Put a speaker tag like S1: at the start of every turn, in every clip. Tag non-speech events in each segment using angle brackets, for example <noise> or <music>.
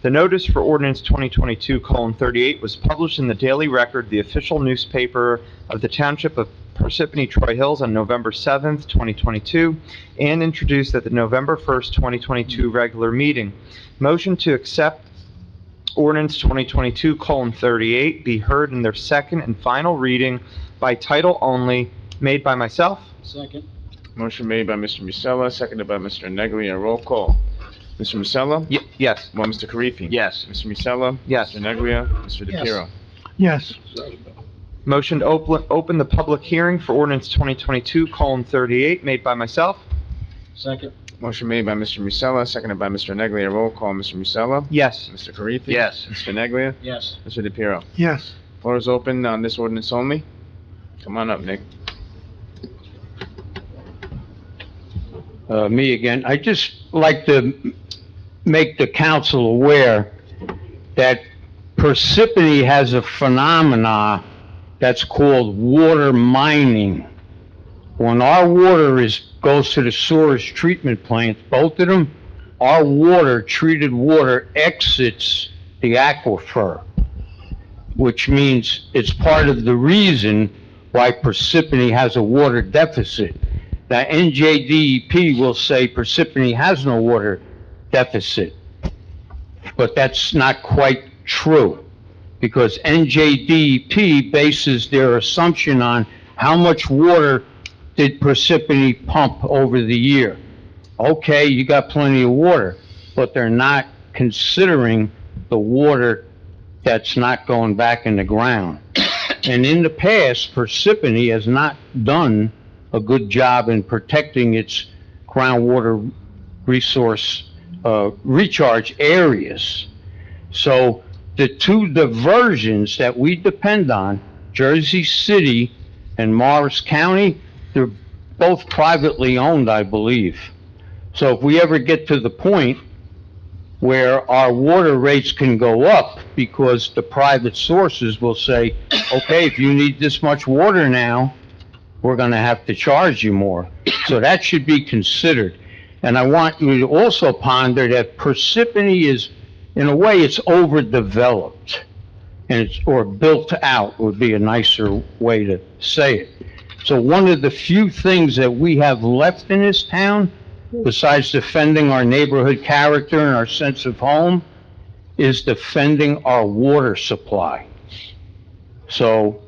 S1: The notice for ordinance 2022:38 was published in the Daily Record, the official newspaper of the Township of Parsippany Troy Hills on November 7th, 2022, and introduced at the November 1st, 2022 regular meeting. Motion to accept ordinance 2022:38 be heard in their second and final reading by title only, made by myself.
S2: Second.
S3: Motion made by Mr. Musella, seconded by Mr. Neglia. Roll call. Mr. Musella?
S1: Y- Yes.
S3: Well, Mr. Karifi?
S4: Yes.
S3: Mr. Musella?
S1: Yes.
S3: Mr. Neglia? Mr.
S2: Yes.
S3: DePiero?
S5: yes,
S1: Motion to open, open the public hearing for ordinance 2022:38 made by myself.
S2: Second.
S3: Motion made by Mr. Musella, seconded by Mr. Neglia. Roll call. Mr. Musella?
S1: Yes.
S3: Mr. Karifi?
S4: Yes.
S3: Mr. Neglia?
S2: Yes.
S3: Mr. DePiero?
S5: yes,
S3: Floor is open on this ordinance only. Come on up, Nick.
S6: uh, me again. I just like to make the council aware that Parsippany has a phenomena that's called water mining. When our water is, goes to the sewers treatment plants, both of them, our water, treated water exits the aquifer, which means it's part of the reason why Parsippany has a water deficit. Now, NJDEP will say Parsippany has no water deficit, but that's not quite true, because NJDEP bases their assumption on how much water did Parsippany pump over the year. Okay, you got plenty of water, but they're not considering the water that's not going back in the ground. <coughs> And in the past, Parsippany has not done a good job in protecting its groundwater resource uh, recharge areas. So the two diversions that we depend on, Jersey City and Morris County, they're both privately owned, I believe. So if we ever get to the point where our water rates can go up because the private sources will say, okay, if you need this much water now, we're going to have to charge you more. So that should be considered. And I want you to also ponder that Parsippany is, in a way, it's overdeveloped. And it's, or built out would be a nicer way to say it. So one of the few things that we have left in this town, besides defending our neighborhood character and our sense of home, is defending our water supply. So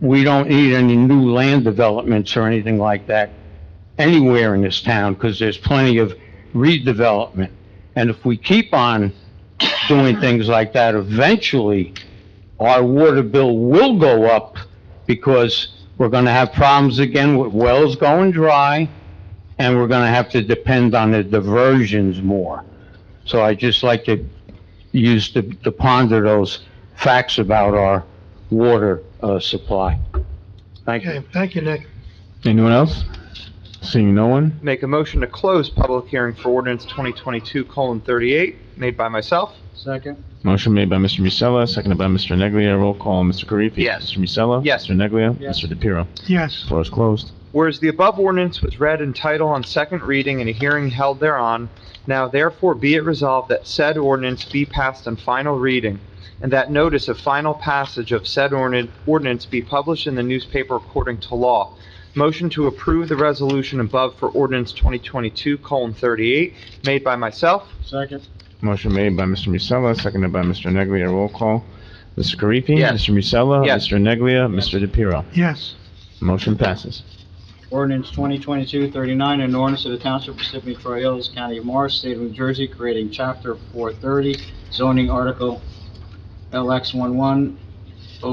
S6: we don't need any new land developments or anything like that anywhere in this town, because there's plenty of redevelopment. And if we keep on doing things like that, eventually, our water bill will go up, because we're gonna have problems again with wells going dry, and we're gonna have to depend on the diversions more. So I just like to use, to to ponder those facts about our water uh, supply. Thank you.
S5: okay, thank you, Nick.
S3: Anyone else? Seeing no one?
S1: Make a motion to close public hearing for ordinance 2022:38 made by myself.
S2: Second.
S3: Motion made by Mr. Musella, seconded by Mr. Neglia. Roll call. Mr. Karifi?
S4: Yes.
S3: Mr. Musella?
S1: Yes.
S3: Mr. Neglia?
S2: Yes.
S3: Mr. DePiero?
S5: Yes,
S3: Floor is closed.
S1: Whereas the above ordinance was read in title on second reading and a hearing held thereon, now therefore be it resolved that said ordinance be passed on final reading, and that notice of final passage of said ordinan- ordinance be published in the newspaper according to law. Motion to approve the resolution above for ordinance 2022:38 made by myself.
S2: Second.
S3: Motion made by Mr. Musella, seconded by Mr. Neglia. Roll call. Mr. Karifi?
S4: Yes.
S3: Mr. Musella?
S1: Yes.
S3: Mr. Neglia? Mr. DePiero?
S5: yes,
S3: Motion passes.
S2: Ordinance 2022-39, an ordinance of the Township of Parsippany Troy Hills, County of Morris, State of New Jersey, creating Chapter 430, zoning article LX11,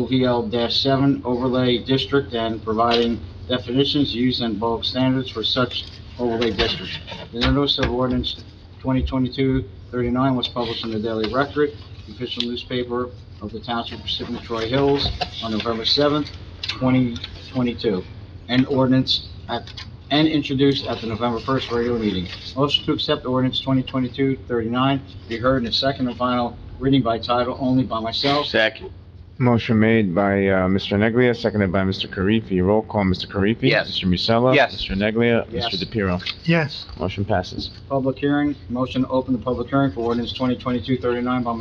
S2: OVL-7 overlay district, and providing definitions, use, and bulk standards for such overlay district. The notice of ordinance 2022-39 was published in the Daily Record, the official newspaper of the Township of Parsippany Troy Hills, on November 7th, 2022 and ordinance at, and introduced at the November 1st regular meeting. Motion to accept ordinance 2022-39 be heard in its second and final reading by title only by myself
S4: Second.
S3: Motion made by uh, Mr. Neglia, seconded by Mr. Karifi. Roll call, Mr. Karifi.
S1: Yes.
S3: Mr. Musella.
S1: Yes.
S3: Mr. Neglia.
S2: Yes.
S3: Mr. DePiero.
S4: yes.
S3: Motion passes.
S2: Public hearing, motion to open the public hearing for ordinance 2022-39 by